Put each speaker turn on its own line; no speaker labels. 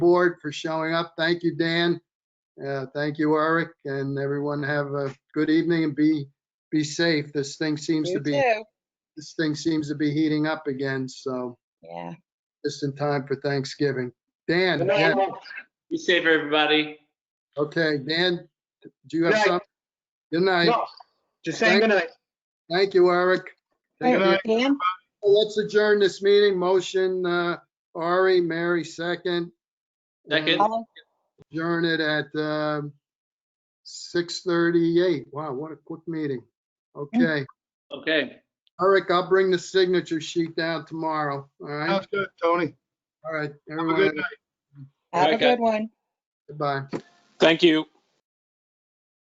board for showing up. Thank you, Dan. Uh, Thank you, Eric, and everyone have a good evening and be, be safe. This thing seems
You
to be,
too.
this thing seems to be heating up again, so
Yeah.
just in time for Thanksgiving. Dan, Dan-
Be safe, everybody.
okay, Dan, do you have
Night.
something? Good night.
No, just saying
Thank-
goodnight.
Thank you, Eric.
Good night.
Dan?
Let's adjourn this meeting. Motion, uh, Ari, Mary, second.
Second.
All
Adjourn it at, um, 6:38. Wow, what a quick meeting. Okay.
Okay.
Eric, I'll bring the signature sheet down tomorrow. All right?
Sounds good, Tony.
All right,
Oh. Have a good
everyone,
night.
Have a
Okay.
good one.
goodbye.
Thank you.